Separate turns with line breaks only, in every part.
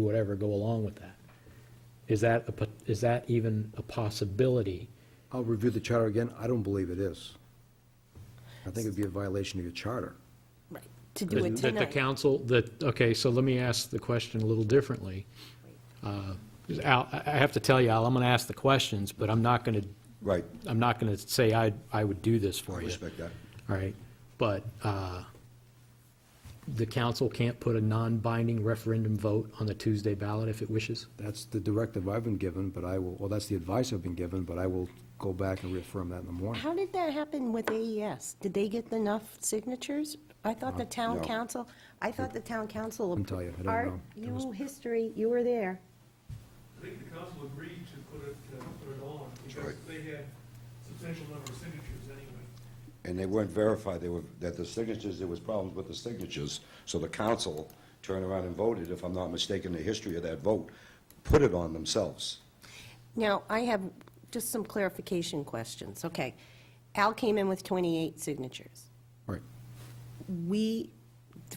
whatever go along with that. Is that, a po- is that even a possibility?
I'll review the charter again. I don't believe it is. I think it'd be a violation of your charter.
Right, to do it
That the
tonight.
council, that, okay, so let me ask the question a little differently. Uh, Al, I I have to tell you, Al, I'm going to ask the questions, but I'm not going to,
Right,
I'm not going to say I, I would do this
I
Oh,
for you.
respect that.
All right, but uh, the council can't put a non-binding referendum vote on the Tuesday ballot if it wishes?
That's the directive I've been given, but I will, well, that's the advice I've been given, but I will go back and reaffirm that in the morning.
How did that happen with AES? Did they get enough signatures? I thought
Uh,
the town
No.
council, I thought the town council.
Couldn't tell you. I don't
Art,
know. It was-
you, history, you were there.
I think the council agreed to put it, uh, put it on, because
right.
they had substantial number of signatures anyway.
And they weren't verified, they were, that the signatures, there was problems with the signatures, so the council turned around and voted, if I'm not mistaken, the history of that vote, put it on themselves.
Now, I have just some clarification questions. Okay. Al came in with 28 signatures.
Right.
We,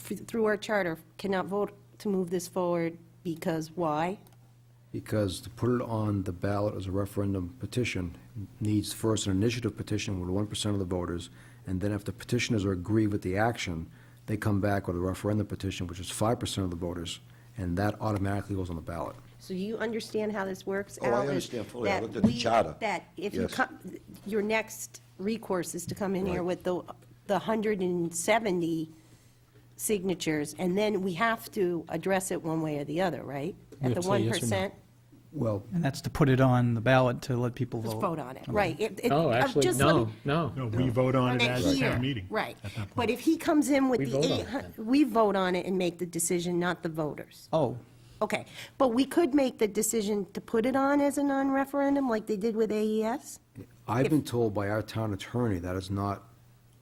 th- through our charter, cannot vote to move this forward because why?
Because to put it on the ballot as a referendum petition needs first an initiative petition with one percent of the voters, and then if the petitioners are agree with the action, they come back with a referendum petition, which is five percent of the voters, and that automatically goes on the ballot.
So you understand how this works,
Oh, I
Al? is
understand fully. I
that
looked at the
we-
charter.
That if you
Yes.
come, your next recourse is to come in here
Right.
with the, the 170 signatures, and then we have to address it one way or the other, right?
We have
At the
to say yes or no.
1%?
Well,
And that's to put it on the ballot to let people vote.
Just vote on it, right. It- it-
No, Oh,
uh,
actually,
just let me-
no, no.
No, we vote on
on
it
it
as a
here.
town meeting.
Right.
at that
But
point.
if he comes in with
We
the
vote on it
800, we vote on it and make the decision, not the voters.
Oh,
Okay, but we could make the decision to put it on as a non-referendum, like they did with E AES?
I've been told by our town attorney that is not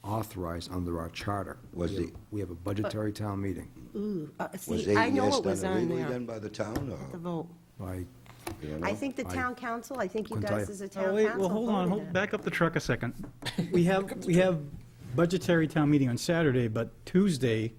authorized under our charter.
Was the-
We have a budgetary town meeting.
Ooh, uh,
Was
see, I know
AES
it was
done
on
illegally
there,
then by the town,
the
or,
vote.
I,
you don't know?
I think the town council, I think you
Couldn't tell
guys
you.
as a town
oh,
council.
wait, well, hold on,
voted
hold,
it.
back up the truck a second. We have, we have budgetary town meeting on Saturday, but Tuesday,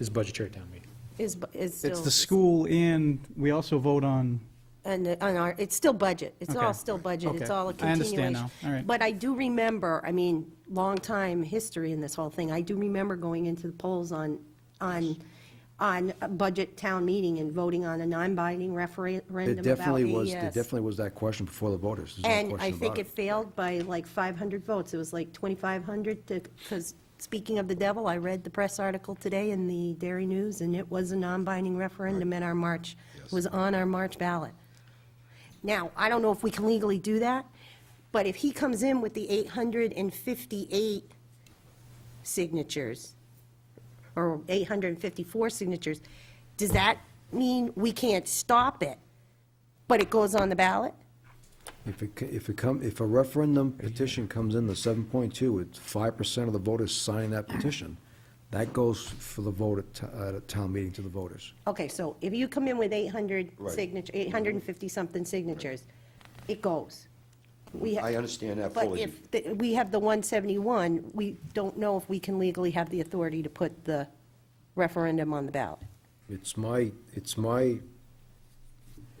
It's budgetary town meeting.
Is, bu- is still.
it's the school and we also vote on,
And, uh, on our, it's still budget. It's all
Okay.
still budget. It's
Okay.
all a
I
continuation.
understand now. All right.
But I do remember, I mean, long time history in this whole thing. I do remember going into the polls on, on, on a budget town meeting and voting on a non-binding referendum about E
It definitely was, there
AES.
definitely was that question before the voters. There's no
And I
question
think
about
it failed by like 500 votes. It was like 2,500 to, because speaking of the devil, I read the press article today in the Dairy News, and it was a non-binding referendum in our March, was on our March ballot. Now, I don't know if we can legally do that, but if he comes in with the 858 signatures, or 854 signatures, does that mean we can't stop it, but it goes on the ballot?
If it, c- if it come, if a referendum petition comes in, the seven point two, it's five percent of the voters signing that petition. That goes for the vote at, t- at a town meeting to the voters.
Okay, so if you come in with 800
Right.
signature, 850-something signatures, it goes. We ha-
I understand that
But
fully.
if the- we have the 171, we don't know if we can legally have the authority to put the referendum on the ballot.
It's my, it's my,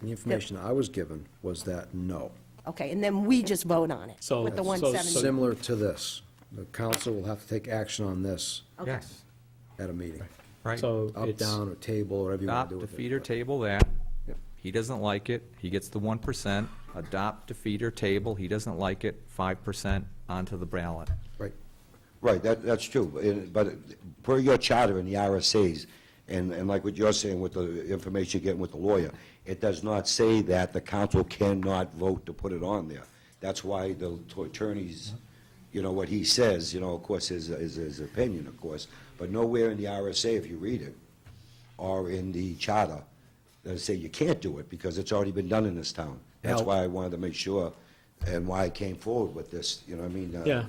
the information I was given was that no.
Okay, and then we just vote on it
So-
with the
so-
170.
Similar to this, the council will have to take action on this
Okay.
Yes,
at a meeting.
right.
So
Up,
it's-
down, or table, whatever you want
Adopt,
to do with it.
defeat, or
but-
table that. He doesn't like it, he gets the one percent. Adopt, defeat, or table, he doesn't like it, five percent onto the ballot.
Right.
Right, that, that's true, but it- but it- per your charter and the RSA's, and, and like what you're saying with the information you're getting with the lawyer, it does not say that the council cannot vote to put it on there. That's why the t- attorneys, you know, what he says, you know, of course, is, is his opinion, of course, but nowhere in the RSA, if you read it, or in the charter, that say you can't do it, because it's already been done in this town. That's
Now-
why I wanted to make sure, and why I came forward with this, you know what I mean? uh,
Yeah,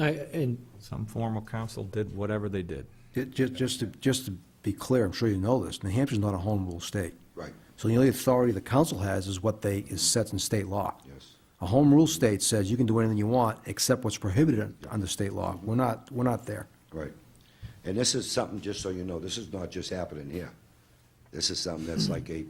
I, and
Some formal council did whatever they did.
Just, just to, just to be clear, I'm sure you know this, New Hampshire's not a home rule state.
Right.
So the only authority the council has is what they, is sets in state law.
Yes.
A home rule state says you can do anything you want, except what's prohibited under state law. We're not, we're not there.
Right. And this is something, just so you know, this is not just happening here. This is something that's like a